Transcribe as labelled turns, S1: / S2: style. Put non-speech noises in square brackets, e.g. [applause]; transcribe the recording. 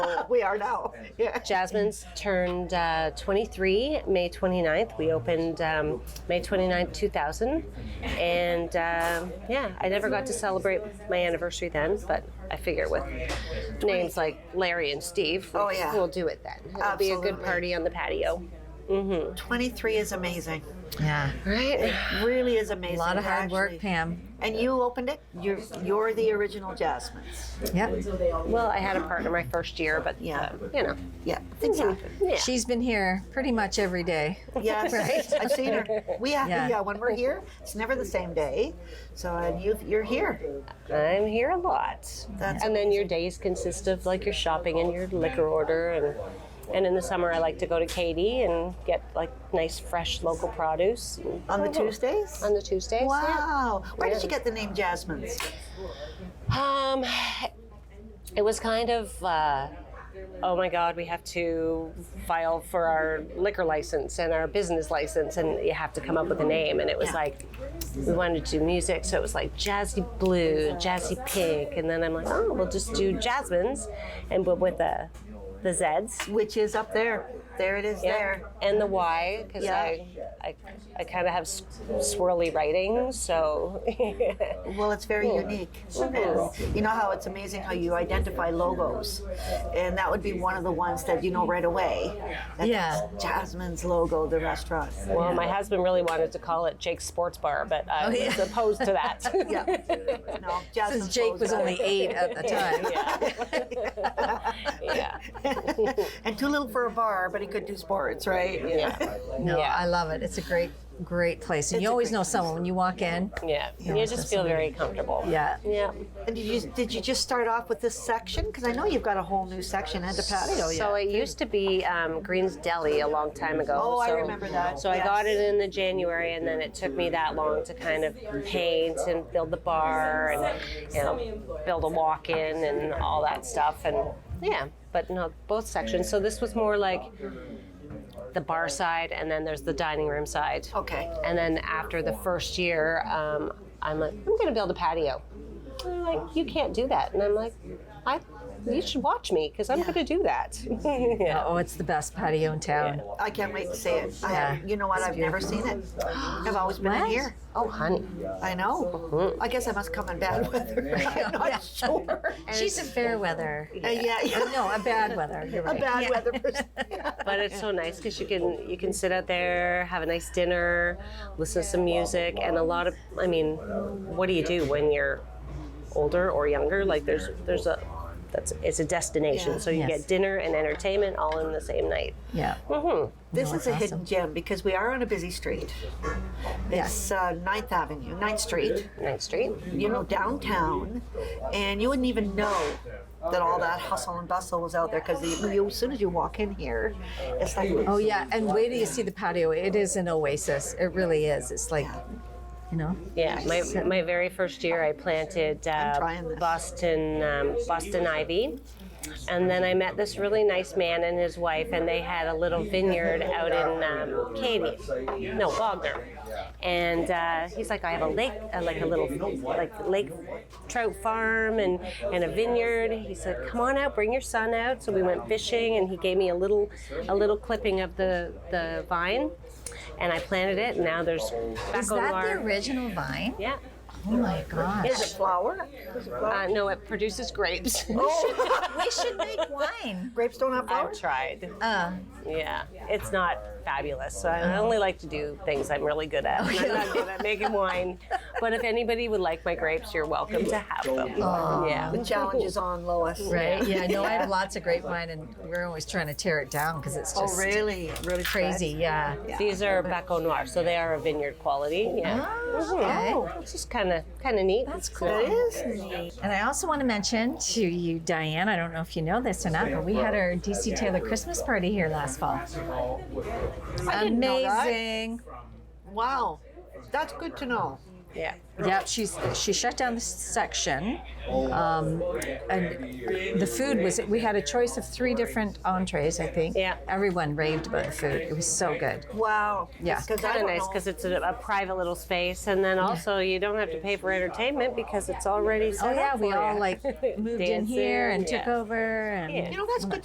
S1: So we are now. [laughs] Yeah.
S2: Jasmine's turned uh, 23 May 29th. We opened um, May 29th, 2000. And um yeah, I never got to celebrate my anniversary then, but I figure with names like Larry and Steve,
S1: Oh, yeah.
S2: we'll do it then. It'll be a good
S1: Absolutely.
S2: party on the patio.
S1: 23 is amazing.
S3: Yeah.
S2: Right?
S1: Really is amazing.
S3: A lot of hard work,
S1: actually.
S3: Pam.
S1: And you opened it. You're you're the original Jasmine's.
S3: Yep.
S2: Well, I had a partner my first year, but
S1: Yeah.
S2: um, you know.
S1: Yeah, things happen.
S2: Yeah.
S3: She's been here pretty much every day.
S1: Yes,
S3: [laughs] Right.
S1: I've seen her. We have,
S3: Yeah.
S1: yeah. When we're here, it's never the same day. So and you you're here.
S2: I'm here a lot.
S1: That's
S2: and then your days consist of like your shopping and your liquor order and and in the summer I like to go to Katie and get like nice fresh local produce and-
S1: on the
S3: Oh.
S1: Tuesdays.
S2: on the Tuesdays. yeah.
S1: Wow. Where did you get the name Jasmine's?
S2: Um it was kind of uh Oh my God! We have to file for our liquor license and our business license, and you have to come up with a name. And it was like we wanted to do music, so it was like jazzy blue, jazzy pink, and then I'm like, oh, we'll just do Jasmine's, and but with the the Z's.
S1: Which is up there. There it is. There.
S2: And the Y, because
S1: Yeah.
S2: I, I, I kind of have s- swirly writing, so [laughs]
S1: Well, it's very unique. And you know how it's amazing how you identify logos, and that would be one of the ones that you know right away. That's
S3: Yeah.
S1: Jasmine's logo, the restaurant.
S2: well, my husband really wanted to call it Jake's Sports Bar, but I
S3: Oh, yeah.
S2: was opposed to
S3: [laughs]
S2: that. [laughs]
S1: Yeah. No, Jasmine's
S3: Since Jake was
S1: logo.
S3: only eight at the time.
S1: [laughs]
S2: yeah.
S1: [laughs] and too little for a bar, but he could do sports, right?
S2: Yeah.
S3: No,
S2: Yeah.
S3: I love it. It's a great, great place. And you
S1: a
S3: always
S1: great
S3: know someone when you walk in.
S2: Yeah. You just feel very comfortable.
S3: Yeah.
S2: Yeah.
S1: And did you did you just start off with this section? Because I know you've got a whole new section at the patio. Oh, yeah.
S2: So it used to be um, Green's Deli a long time ago.
S1: Oh, I
S2: so-
S1: remember that,
S2: So I
S1: yes.
S2: got it in the January, and then it took me that long to kind of paint and build the bar and you know build a walk-in and all that stuff. And yeah, but no, both sections. So this was more like the bar side, and then there's the dining room side.
S1: Okay.
S2: And then after the first year, um, I'm like, I'm going to build a patio. And they're like, you can't do that. And I'm like, I, you should watch me because I'm going to do that. [laughs] yeah.
S3: Oh, it's the best patio in town.
S1: I can't wait to see it. I
S3: Yeah.
S1: have, you know what? I've never seen it. I've always been in
S3: What?
S1: here.
S2: Oh, honey.
S1: I know. I guess I must come in bad [laughs]
S3: [laughs]
S1: weather. I'm not
S3: Oh, Yeah.
S1: sure. [laughs]
S3: She's a fair weather.
S1: Uh, yeah, yeah.
S3: No, a bad weather. You're
S1: A
S3: right.
S1: bad weather person.
S3: [laughs]
S2: But it's so nice because you can you can sit out there, have a nice dinner, listen to some music, and a lot of. I mean, what do you do when you're older or younger? Like there's there's a that's it's a destination.
S1: Yeah.
S2: So you
S3: Yes.
S2: get dinner and entertainment all in the same night.
S3: Yeah.
S1: This
S3: No,
S1: is a
S3: awesome.
S1: hidden gem because we are on a busy street.
S3: Yes.
S1: It's uh, 9th Avenue, 9th Street,
S2: Ninth Street.
S1: you know, downtown. And you wouldn't even know that all that hustle and bustle was out there because you, as soon as you walk in here, it's like,
S3: Oh yeah. And wait till you see the patio. It is an oasis. It really is. It's like, you know.
S2: Yeah, my, my very first year, I planted
S1: trying
S2: uh,
S1: this.
S2: Boston um, Boston ivy, and then I met this really nice man and his wife, and they had a little vineyard out in um, Katy, no Wagner, and uh, he's like, I have a lake, uh, like a little like lake trout farm and and a vineyard. He said, Come on out, bring your son out. So we went fishing, and he gave me a little a little clipping of the the vine, and I planted it. And now there's
S3: Is that the
S2: bacolar.
S3: original vine?
S2: Yeah.
S3: Oh my
S1: is
S3: gosh.
S1: it flower? Is it flower?
S2: Uh, no, it produces grapes. [laughs]
S3: we should make wine.
S1: [laughs] Grapes don't have
S2: I've
S1: flowers?
S2: tried.
S3: Uh,
S2: Yeah, it's not fabulous. So I
S3: Oh.
S2: only like to do things I'm really good
S3: [laughs]
S2: at. And I'm not good at making wine. But if anybody would like my grapes, you're welcome to have them. Yeah.
S1: The challenge is on, Lois.
S3: right. Yeah.
S1: [laughs]
S3: No, I have lots of grapevine, and we're always trying to tear it down because it's
S1: Oh,
S3: just
S1: really? Really
S3: crazy. Yeah.
S2: These are Baco Noir, so they are a vineyard quality. Yeah.
S3: Oh, okay.
S2: Mhm. It's just kind of kind of neat.
S3: That's cool.
S1: Oh. It is neat.
S3: And I also want to mention to you, Diane, I don't know if you know this or not, but we had our DC Taylor Christmas party here last fall. Amazing.
S1: Wow. That's good to know.
S2: Yeah.
S3: Yep, she's she shut down the section, um, and the food was. We had a choice of three different entrees, I think.
S2: Yeah.
S3: Everyone raved about the food. It was so good.
S1: Wow.
S3: Yeah.
S1: Because I
S2: Kind of
S1: don't
S2: nice
S1: know.
S2: because it's a, a private little space, and then also you don't have to pay for entertainment because it's already set
S3: Oh yeah,
S2: up
S3: we
S2: for
S3: all
S2: [laughs] you.
S3: like moved in
S2: Dancing,
S3: here and took
S2: yeah.
S3: over and.
S2: Yeah.
S1: you know that's good